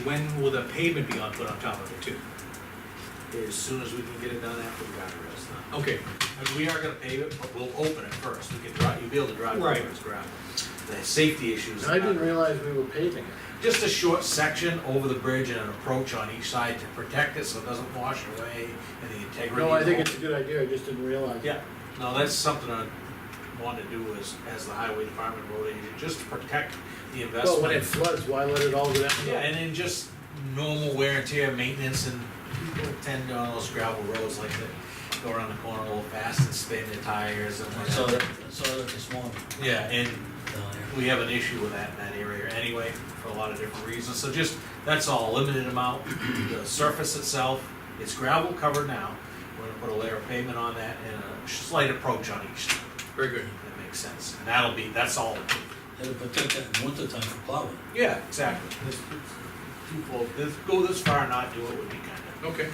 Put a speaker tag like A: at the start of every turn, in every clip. A: When will the pavement be on, put on top of it too?
B: as soon as we can get it done after the guardrail's done.
A: Okay,
B: And we are gonna pave it, but we'll open it first, we can drive, you'll be able to drive
A: Right.
B: over this gravel. The safety issues.
C: I didn't realize we were paving it.
B: Just a short section over the bridge and an approach on each side to protect it so it doesn't wash away and the integrity.
C: No, I think
B: of
C: it's a good idea, I just didn't realize.
B: Yeah, no, that's something I wanted to do as, as the highway department road agent, just to protect the investment.
C: Well, when it floods, why let it all go down? the hill?
B: Yeah, and then just normal wear and tear, maintenance, and people tend to on those gravel roads like that, go around the corner a little fast and spin their tires and
D: I
B: like
D: saw
B: that.
D: that, I saw that this morning uh,
B: Yeah, and
D: down there.
B: we have an issue with that in that area anyway, for a lot of different reasons, so just, that's all, limited amount, the surface itself, it's gravel covered now, we're gonna put a layer of pavement on that and a slight approach on each, side,
A: very good.
B: if that makes sense, and that'll be, that's all.
D: That'll protect that in winter time for plowing.
B: Yeah, exactly, This- this- twofold, this, go this far and not do it would be kinda,
A: Okay.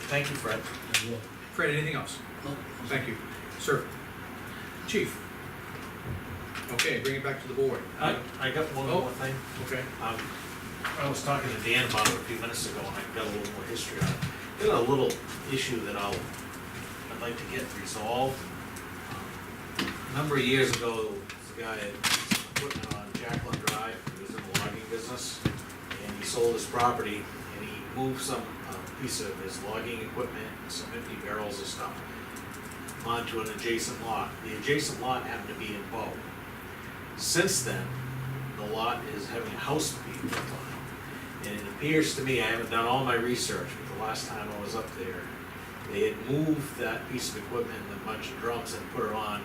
B: thank you, Fred.
D: and what-
A: Fred, anything else?
D: no,
A: Thank you. Sir? Chief? Okay, bring it back to the board.
B: I, I got one
A: Oh.
B: more thing.
A: Okay.
B: Um, I was talking to Dan about it a few minutes ago, and I've got a little more history on it. Got a little issue that I'll, I'd like to get resolved. Um, A Number of years ago, this guy had put it on Jaclyn Drive, he was in the logging business, and he sold his property, and he moved some uh, piece of his logging equipment, some empty barrels of stuff, onto an adjacent lot. The adjacent lot happened to be in Bow. Since then, the lot is having a house being built on it. And it appears to me, I haven't done all my research, but the last time I was up there, they had moved that piece of equipment and a bunch of drums and put it on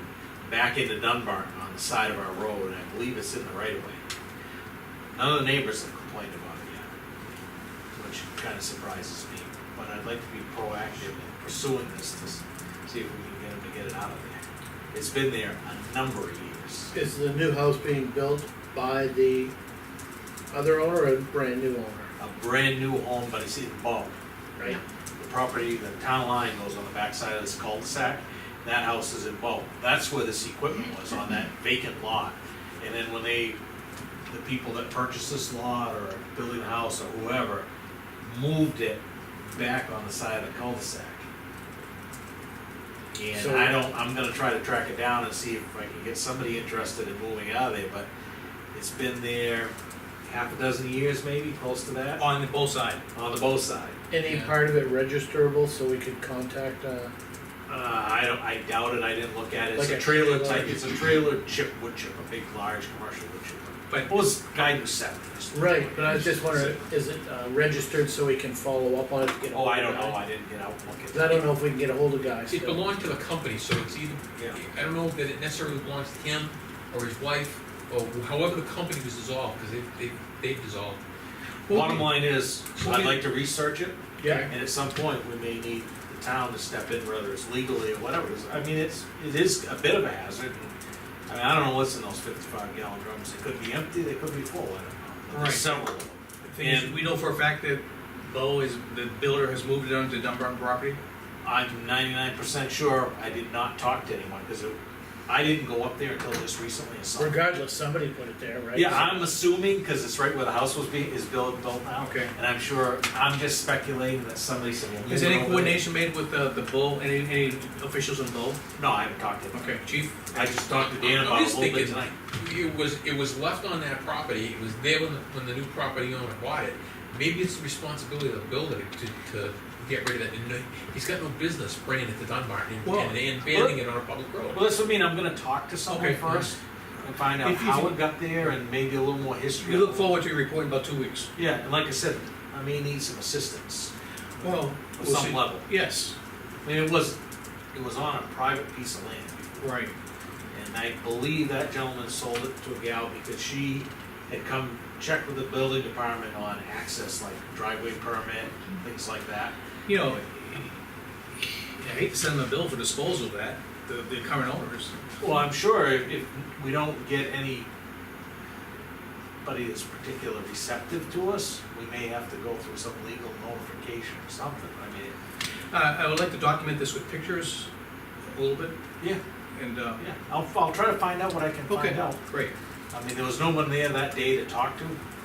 B: back into Dunbarton on the side of our road, and I believe it's in the right of way. None of the neighbors have complained about it yet, which kind of surprises me, but I'd like to be proactive in pursuing this to s- see if we can get them to get it out of there. It's been there a number of years.
C: Is the new house being built by the other owner or a brand new owner?
B: a brand new home, but it's in bulk, right? The property, the town line goes on the backside of this cul-de-sac, that house is in bulk. That's where this equipment was, on that vacant lot. And then when they, the people that purchased this lot or building the house or whoever, moved it back on the side of the cul-de-sac. And
C: So-
B: I don't, I'm gonna try to track it down and see if I can get somebody interested in moving out of there, but it's been there half a dozen years maybe, close to that,
A: On the both side.
B: on the both side.
C: Any
A: Yeah.
C: part of it registerable so we could contact, uh,
B: Uh, I don't, I doubt it, I didn't look at it, it's
C: Like
B: a
C: a
B: trailer
C: trailer.
B: type, it's a trailer chip wood chip, a big, large commercial wood chip.
A: But-
B: It was guidance set.
C: right, but I was just wondering, is it, uh, registered so we can follow up on it to get? a
B: Oh,
C: hold
B: I
C: of
B: don't
C: guys?
B: know, I didn't get out and look at
C: 'Cause
B: it.
C: I don't know if we can get a hold of guys.
E: It belonged to a company, so it's either,
B: Yeah.
E: I don't know that it necessarily belongs to him or his wife, or however the company was dissolved, because they, they, they've dissolved.
B: Bottom line is, I'd like to research it,
C: Yeah,
B: and at some point, we may need the town to step in, whether it's legally or whatever. I mean, it's, it is a bit of a hazard. I mean, I don't know what's in those fifty-five gallon drums, they could be empty, they could be full, I don't know. But
A: Right.
B: There's several of them.
A: And we know for a fact that Bo is, the builder has moved it onto Dunbar property?
B: I'm ninety-nine percent sure I did not talk to anyone, because I didn't go up there until just recently and saw. it.
C: regardless, somebody put it there, right?
B: Yeah, I'm assuming, because it's right where the house was being, is built, built now.
A: Okay.
B: And I'm sure, I'm just speculating that somebody said. well,
A: Is
B: move it
A: any
B: over
A: coordination made with the, the Bo, any, any officials in Bo?
B: there. No, I haven't talked to them.
A: Okay, chief?
B: I just talked to Dan
E: I'm
B: about it
E: just
B: a little bit
E: thinking-
B: tonight.
E: It was, it was left on that property, it was there when the, when the new property owner bought it. Maybe it's the responsibility of the builder to, to get rid of that, and he's got no business spraying it to Dunbar and,
B: Well,
E: and and banning it on a public road.
B: Well, that's what I mean, I'm gonna talk to someone
A: Okay.
B: first, and find out
A: If you-
B: how it got there, and maybe a little more history.
A: We
B: on
A: look
B: it.
A: forward to your report in about two weeks.
B: Yeah, and like I said, I may need some assistance,
A: Well,
B: at some level.
A: Yes,
B: I mean, it was, it was on a private piece of land.
A: right.
B: And I believe that gentleman sold it to a gal because she had come check with the building department on access, like driveway permit, things like that.
A: You know, I hate to send them a bill for disposal of that, the, the current owners.
B: Well, I'm sure if, if we don't get any anybody that's particularly receptive to us, we may have to go through some legal notification or something, I mean.
A: Uh, I would like to document this with pictures a little bit
B: Yeah.
A: and, uh,
B: Yeah, I'll, I'll try to find out what I can
A: okay,
B: find out.
A: great.
B: I mean, there was no one there that day to talk to,